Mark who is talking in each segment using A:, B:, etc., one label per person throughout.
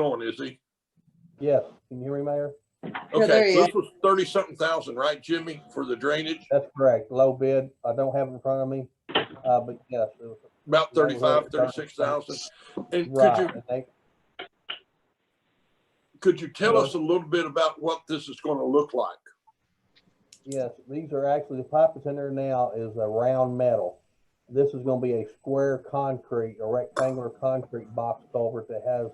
A: going, is he?
B: Yes, can you hear me, Mayor?
C: Yeah, there
A: Okay,
C: he is.
A: this was thirty-something thousand, right, Jimmy, for the drainage?
B: That's correct, low bid. I don't have it in front of me, uh, but yes, it was
A: About
B: Yeah, we're
A: thirty-five,
B: at
A: thirty-six thousand. And could
B: right.
A: you,
B: and they-
A: could you tell us a little bit about what this is gonna look like?
B: Yes, these are actually, the pipe that's in there now is a round metal. This is gonna be a square concrete, a rectangular concrete box culvert that has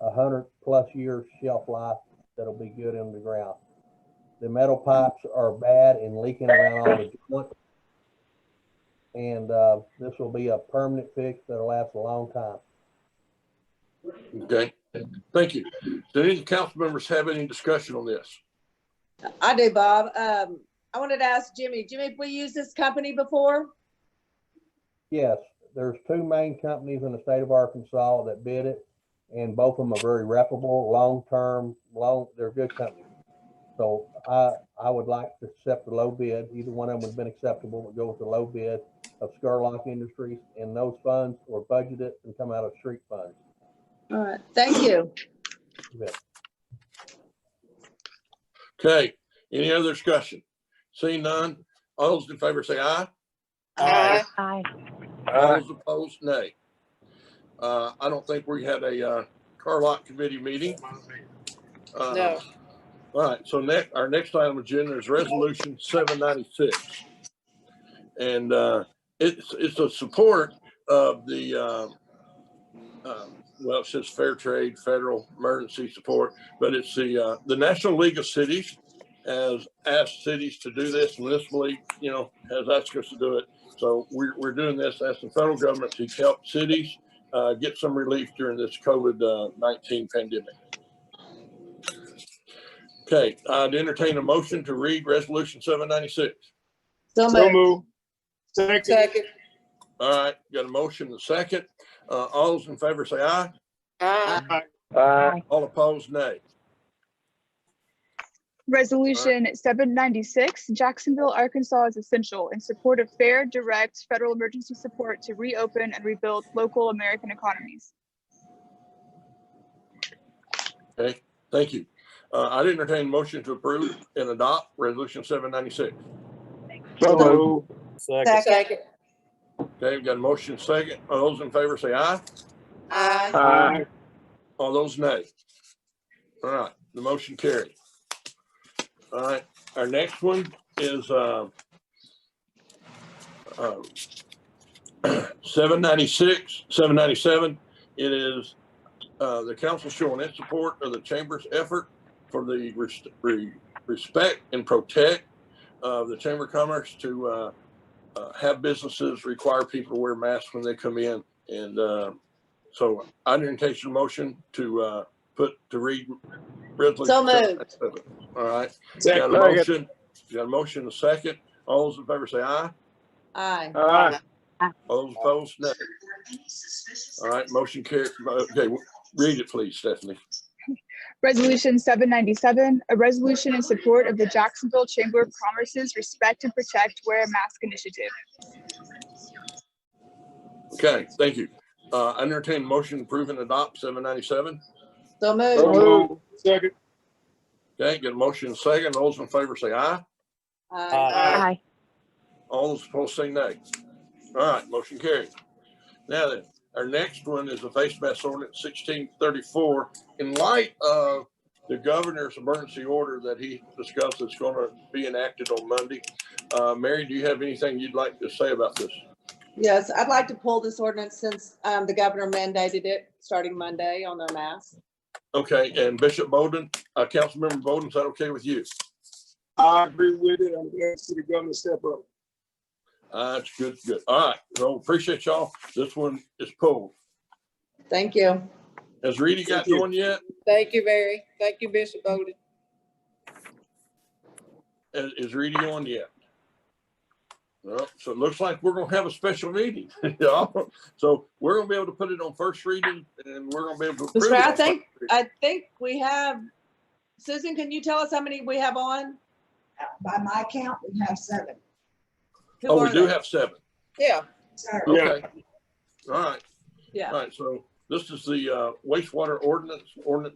B: a hundred plus year shelf life that'll be good in the ground. The metal pipes are bad and leaking around all the joint. And, uh, this will be a permanent fix that'll last a long time.
A: Okay, thank you. Do any of the council members have any discussion on this?
C: I do, Bob. Um, I wanted to ask Jimmy, Jimmy, have we used this company before?
B: Yes, there's two main companies in the state of Arkansas that bid it, and both of them are very reputable, long-term, long, they're good companies. So I, I would like to accept the low bid, either one of them would have been acceptable, but go with the low bid of Scarlock Industries, and those funds were budgeted and come out of street funds.
C: All right, thank you.
A: Okay, any other discussion? Seeing none, all those in favor say aye.
D: Aye.
E: Aye.
A: All those opposed, nay. Uh, I don't think we had a, uh, car lot committee meeting. Uh,
C: No.
A: All right, so next, our next item agenda is resolution seven ninety-six. And, uh, it's, it's a support of the, um, um, well, it says fair trade, federal emergency support, but it's the, uh, the National League of Cities has asked cities to do this, and this league, you know, has asked us to do it. So we're, we're doing this as the federal government to help cities, uh, get some relief during this COVID-19 pandemic. Okay, I'd entertain a motion to read resolution seven ninety-six.
C: So
D: So
C: moved.
D: move. Second.
C: Second.
A: All right, got a motion and a second. Uh, all those in favor say aye.
D: Aye.
A: All opposed, nay.
F: Resolution 796, Jacksonville, Arkansas is essential in support of fair, direct federal emergency support to reopen and rebuild local American economies.
A: Okay, thank you. Uh, I'd entertain a motion to approve and adopt resolution seven ninety-six.
D: So move. Second.
C: Second.
A: Okay, we've got a motion second. All those in favor say aye.
C: Aye.
D: Aye.
A: All those nay. All right, the motion carried. All right, our next one is, um, uh, seven ninety-six, seven ninety-seven. It is, uh, the council showing its support of the chamber's effort for the res- re- respect and protect of the Chamber of Commerce to, uh, uh, have businesses require people to wear masks when they come in and, uh, so I entertain a motion to uh, put, to read. resolution
C: So moved.
A: All right. Got a
D: Second.
A: motion, got a motion, and a second. All those in favor say aye.
C: Aye.
D: Aye.
A: All those opposed, no. All right, motion carried. Okay, read it, please, Stephanie.
F: Resolution 797, a resolution in support of the Jacksonville Chamber of Commerce's Respect and Protect Wear a Mask initiative.
A: Okay, thank you. Uh, I entertain a motion to approve and adopt seven ninety-seven.
C: So
D: So
C: moved.
D: move. Second.
A: Okay, get a motion, and a second. All those in favor say aye.
C: Aye.
E: Aye.
A: All those opposed say nay. All right, motion carried. Now then, our next one is the face mask ordinance sixteen thirty-four. In light of the governor's emergency order that he discussed that's gonna be enacted on Monday, uh, Mary, do you have anything you'd like to say about this?
C: Yes, I'd like to pull this ordinance since um, the governor mandated it starting Monday on their masks.
A: Okay, and Bishop Bowden, uh, Councilmember Bowden, is that okay with you?
D: I agree with it. I'm glad to see the governor step up.
A: Uh, it's good, good. All right, so appreciate y'all. This one is pulled.
C: Thank you.
A: Has Reedy got
D: Thank you.
A: one yet?
G: Thank you, Mary. Thank you, Bishop Bowden.
A: Is, is Reedy on yet? Well, so it looks like we're gonna have a special meeting. y'all. So we're gonna be able to put it on first reading and we're gonna be able to.
C: That's
A: approve
C: right.
A: it
C: I
A: on
C: think-
A: first reading.
C: I think we have, Susan, can you tell us how many we have on?
H: by my count, we have seven.
C: Who
A: Oh, we
C: are
A: do
C: they?
A: have seven.
G: Yeah,
H: So
D: Yeah.
A: Okay. All right,
C: Yeah.
A: all right. So this is the uh, wastewater ordinance, ordinance